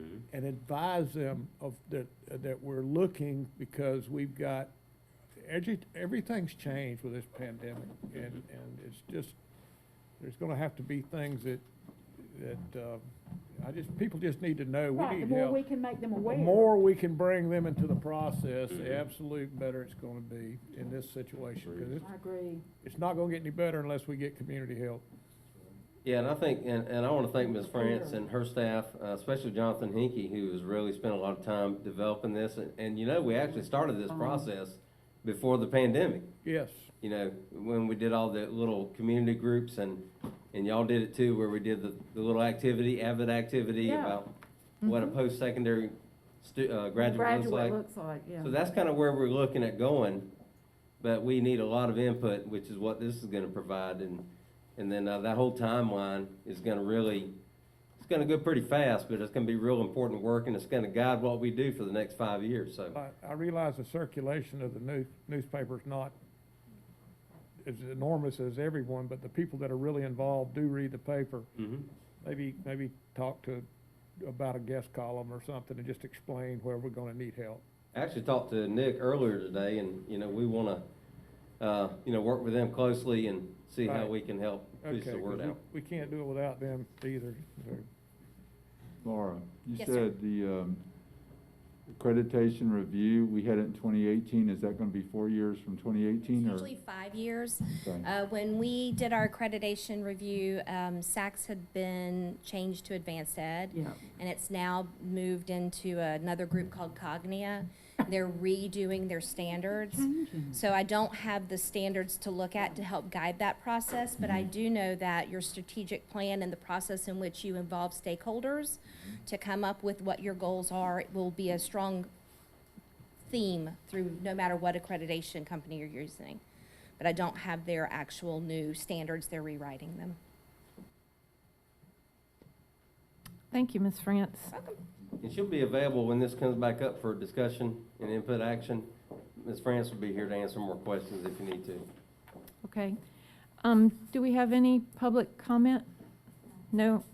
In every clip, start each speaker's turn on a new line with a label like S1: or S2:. S1: Mm-hmm.
S2: and advise them of, that, that we're looking because we've got, edu- everything's changed with this pandemic and, and it's just, there's gonna have to be things that, that, uh, I just, people just need to know, we
S3: Right, the
S2: need
S3: more
S2: help.
S3: we can make them
S2: The
S3: aware.
S2: more we can bring them into the process, the absolute better it's gonna be in this situation. Cause it's,
S3: I agree.
S2: it's not gonna get any better unless we get community help.
S1: Yeah, and I think, and, and I want to thank Ms. France and her staff, uh, especially Jonathan Hinkey, who has really spent a lot of time developing this. And, and you know, we actually started this
S4: Uh-huh.
S1: process before the pandemic.
S2: Yes,
S1: You know, when we did all the little community groups and, and y'all did it too, where we did the, the little activity, avid activity
S4: Yeah. Mm-hmm.
S1: about what a post-secondary stu, uh, graduate looks like.
S4: Graduate looks like, yeah.
S1: So that's kind of where we're looking at going, but we need a lot of input, which is what this is gonna provide, and, and then, uh, that whole timeline is gonna really, it's gonna go pretty fast, but it's gonna be real important work, and it's gonna guide what we do for the next five years, so.
S2: I, I realize the circulation of the new, newspaper's not as enormous as everyone, but the people that are really involved do read the paper.
S1: mhm.
S2: Maybe, maybe talk to, about a guest column or something and just explain where we're gonna need help.
S1: I Actually talked to Nick earlier today, and, you know, we wanna, uh, you know, work with them closely and see how
S2: Right.
S1: we can help push
S2: Okay,
S1: the
S2: 'cause
S1: word
S2: we-
S1: out.
S2: We can't do it without them either, so.
S5: Laura, you
S6: Yes, sir.
S5: said the um, accreditation review, we had it in 2018, is that going to be four years from 2018 or?
S6: Usually five years.
S5: Okay.
S6: Uh, When we did our accreditation review, um, SACS had been changed to advanced ed,
S4: Yeah.
S6: and it's now moved into another group called Cognia. They're redoing their standards. So I don't have the standards to look at to help guide that process, but I do know that your strategic plan and the process in which you involve stakeholders to come up with what your goals are will be a strong theme through no matter what accreditation company you're using. But I don't have their actual new standards, they're rewriting them.
S4: Thank you, Ms. France.
S1: And she'll be available when this comes back up for discussion and input action. Ms. France will be here to answer more questions if you need to.
S4: Okay. Um, do we have any public comment? No?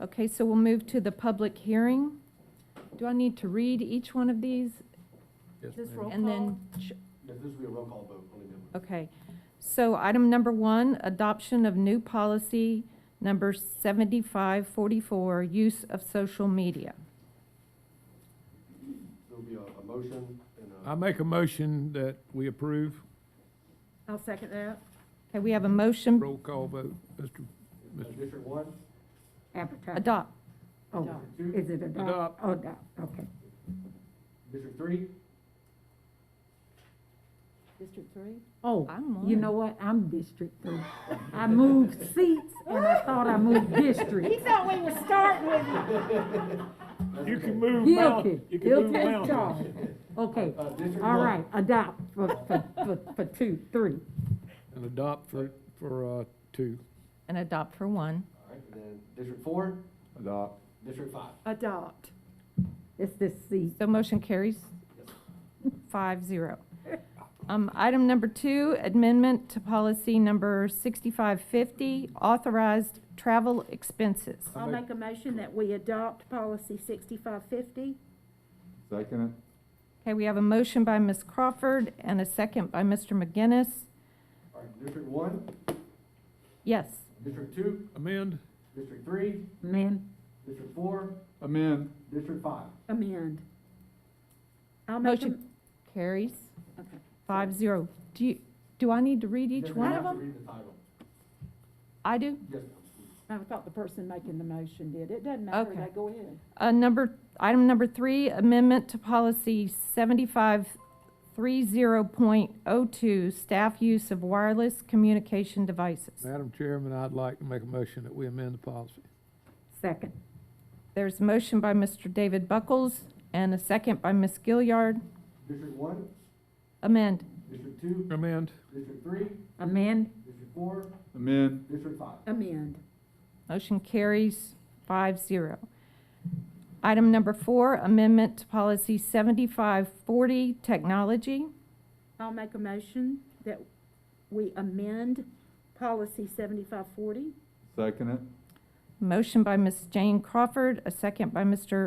S4: Okay, so we'll move to the public hearing. Do I need to read each one of these
S3: Just roll
S4: and
S3: call.
S4: then? ch-
S7: Yes, this will be a roll call vote, only then.
S4: Okay. So item number one, adoption of new policy number 7544, use of social media.
S7: There'll be a, a motion and a.
S2: I make a motion that we approve,
S3: I'll second that.
S4: Okay, we have a motion,
S2: roll call vote, Mr.
S7: Uh, District one,
S8: Advertise.
S4: adopt.
S8: Oh,
S7: district two,
S8: is it adopt?
S2: Adopt.
S8: Oh, adopt, okay.
S7: district three,
S3: District three?
S8: Oh,
S4: I'm on
S8: you
S4: it.
S8: know what? I'm district three. I moved seats and I thought I moved
S3: He
S8: district.
S3: thought we were starting with you.
S2: You can move
S8: Guilty.
S2: mountains, you can move
S8: Guilty as
S2: mountains.
S8: charged. Okay,
S7: uh, district one.
S8: all right, adopt for, for, for- for two, three.
S2: And adopt for, for, uh, two.
S4: And adopt for one.
S7: All right, and then district four,
S5: Adopt.
S7: district five.
S3: Adopt.
S8: It's this seat.
S4: So motion carries five zero. Um, item number two, amendment to policy number sixty-five fifty, authorized travel expenses.
S3: I'll make a motion that we adopt policy sixty-five fifty.
S5: Second it?
S4: Okay, we have a motion by Ms. Crawford and a second by Mr. McGinnis.
S7: All right, district one,
S4: Yes,
S7: district two,
S2: Amend?
S7: district three,
S8: Amend,
S7: district four,
S5: Amend.
S7: district five.
S8: amend.
S3: I'll make a,
S4: motion carries
S8: Okay.
S4: five zero. Do you, do I need to read each
S7: Yes,
S4: one
S7: you
S4: of
S7: have
S4: them?
S7: to Read the title.
S4: I do.
S7: Yes,
S3: I thought the person making the motion did. It doesn't matter.
S4: Okay.
S3: They go ahead.
S4: Uh, number, item number three, amendment to policy seventy-five three zero point oh two, staff use of wireless communication devices.
S2: Madam Chairman, I'd like to make a motion that we amend the policy.
S8: Second,
S4: There's a motion by Mr. David Buckles and a second by Ms. Gilliard.
S7: district one,
S4: Amend.
S7: district two,
S2: Amend?
S7: district three,
S8: amend,
S7: district four,
S5: Amend.
S7: district five.
S3: Amend.
S4: Motion carries five zero. Item number four, amendment to policy seventy-five forty, technology.
S3: I'll make a motion that we amend policy seventy-five forty.
S5: Second it?
S4: Motion by Ms. Jane Crawford, a second by Mr.